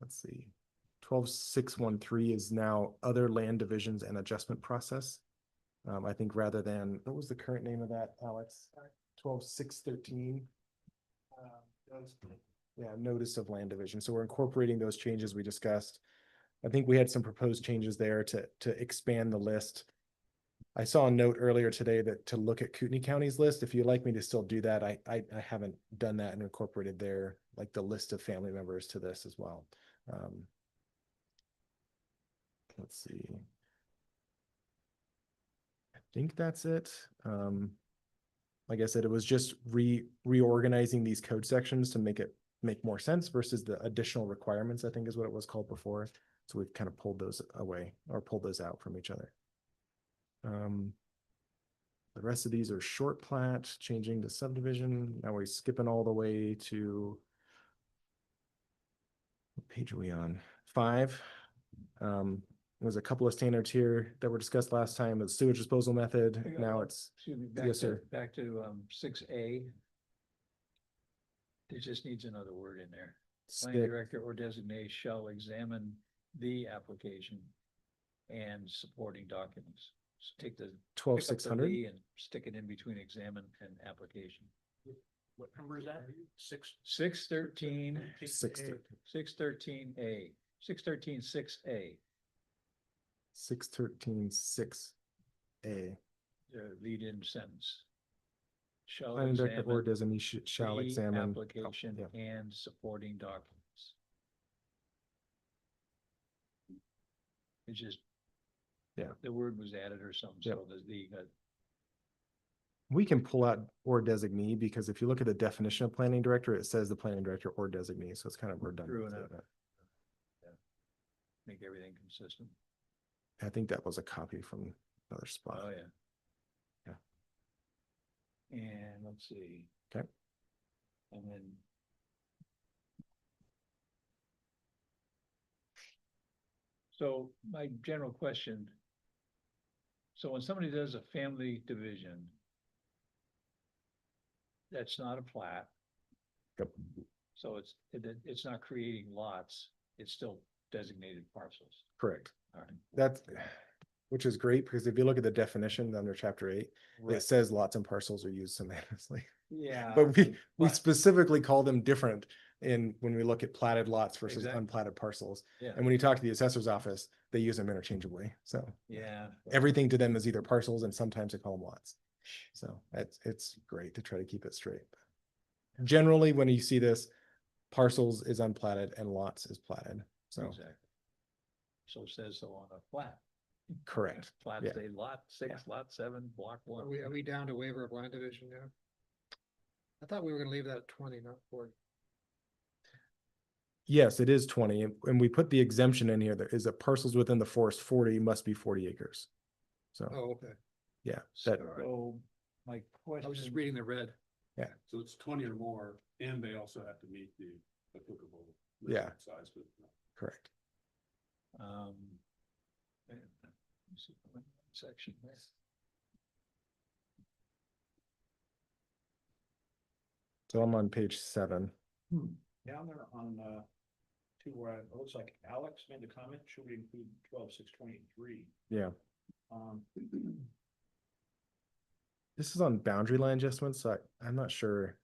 let's see. Twelve six one three is now other land divisions and adjustment process. Um, I think rather than, what was the current name of that, Alex? Twelve six thirteen? Yeah, notice of land division. So we're incorporating those changes we discussed. I think we had some proposed changes there to, to expand the list. I saw a note earlier today that to look at Kootenai County's list, if you'd like me to still do that, I, I, I haven't done that and incorporated their, like the list of family members to this as well. Um. Let's see. I think that's it. Um. Like I said, it was just re, reorganizing these code sections to make it make more sense versus the additional requirements, I think is what it was called before. So we've kind of pulled those away or pulled those out from each other. Um, the rest of these are short plat, changing to subdivision. Now we're skipping all the way to what page are we on? Five. Um, there's a couple of standards here that were discussed last time, the sewage disposal I method. got Now one. it's, Excuse me, back Yes, to, sir. back to um six A. It just needs another word in there. Planning stick- director or designate shall examine the application and supporting documents. So take the. twelve pick Oh, up six the hundred. "the" And stick it in between examine and application. What number is that? Six. Six thirteen, Six thirteen. six thirteen A, six thirteen, six A, Six thirteen six A. the lead in sentence. Shall Planning director uh, or examine designee sh- shall the examine. oh, Application yeah. and supporting documents. It's just. Yeah. The word was added or something, Yep. so the, the, uh, We can pull out or designee because if you look at the definition of planning director, it says the planning director or designee, so it's kind of redundant. enough. so make everything consistent. that- I think that was a copy from another Oh, spot. yeah. And let's see. Okay. And then. So my general question. So when somebody does a family division. That's not a plat, Yep. so it's, it, it- it's not creating lots, it's still designated parcels, Correct. all right? That's, which is great because if you look at the definition under chapter eight, it says lots and parcels are used synonymously. Yeah. But we, we but- specifically call them different in, when we look at platted lots versus Exactly. unplatted parcels. Yeah, And when you talk to the assessor's office, they use them interchangeably. So yeah. everything to them is either parcels and sometimes they call them lots. So it's, it's great to try to keep it straight. Generally, when you see this, parcels is unplatted and lots is platted. So, Exactly. So says so on a flat. correct. Flat Yeah. say lot six, lot seven, block one. Are we, are we down to waiver of land division now? I thought we were gonna leave that at twenty, not forty. Yes, it is twenty, and- and we put the exemption in here. There is a parcels within the forest forty must be forty acres. So, Oh, okay. yeah, that, So my I was just question, reading the red. So it's twenty or more, and they also have to meet the applicable. Yeah. minimum Size, but correct. um. let me see if I can- Section. there. So I'm on page seven. down there on, uh, two where I- it looks like Alex made the comment, should we include twelve, six, twenty-three? Yeah. Um, This is on boundary line adjustments, so I, I'm not sure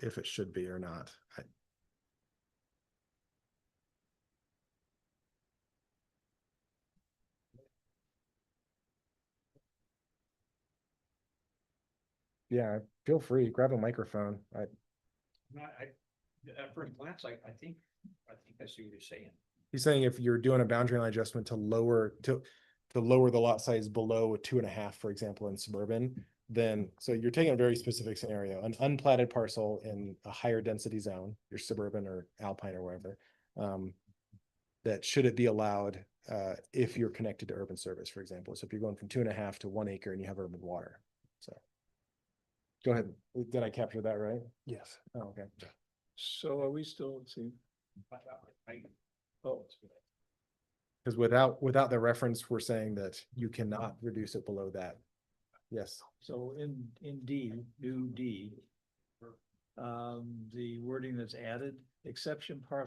if it should be or not. I, yeah, feel free, grab a microphone. I, not, I, at first glance, I, I think, I think I see what you're saying. he's saying if you're doing a boundary line adjustment to lower, to, to lower the lot size below a two and a half, for example, in suburban, then, so you're taking a very specific scenario, an unplatted parcel in a higher density zone, your suburban or alpine or wherever. Um, that should it be allowed, uh, if you're connected to urban service, for example, so if you're going from two and a half to one acre and you have urban water, so. Go ahead, did I capture that right? Yes. Oh, okay. So are we still, let's see, I- I- I- oh, Because without, without the reference, we're saying that you cannot reduce it below that. Yes, so in, in D, new D. Um, the wording that's added, exception parcel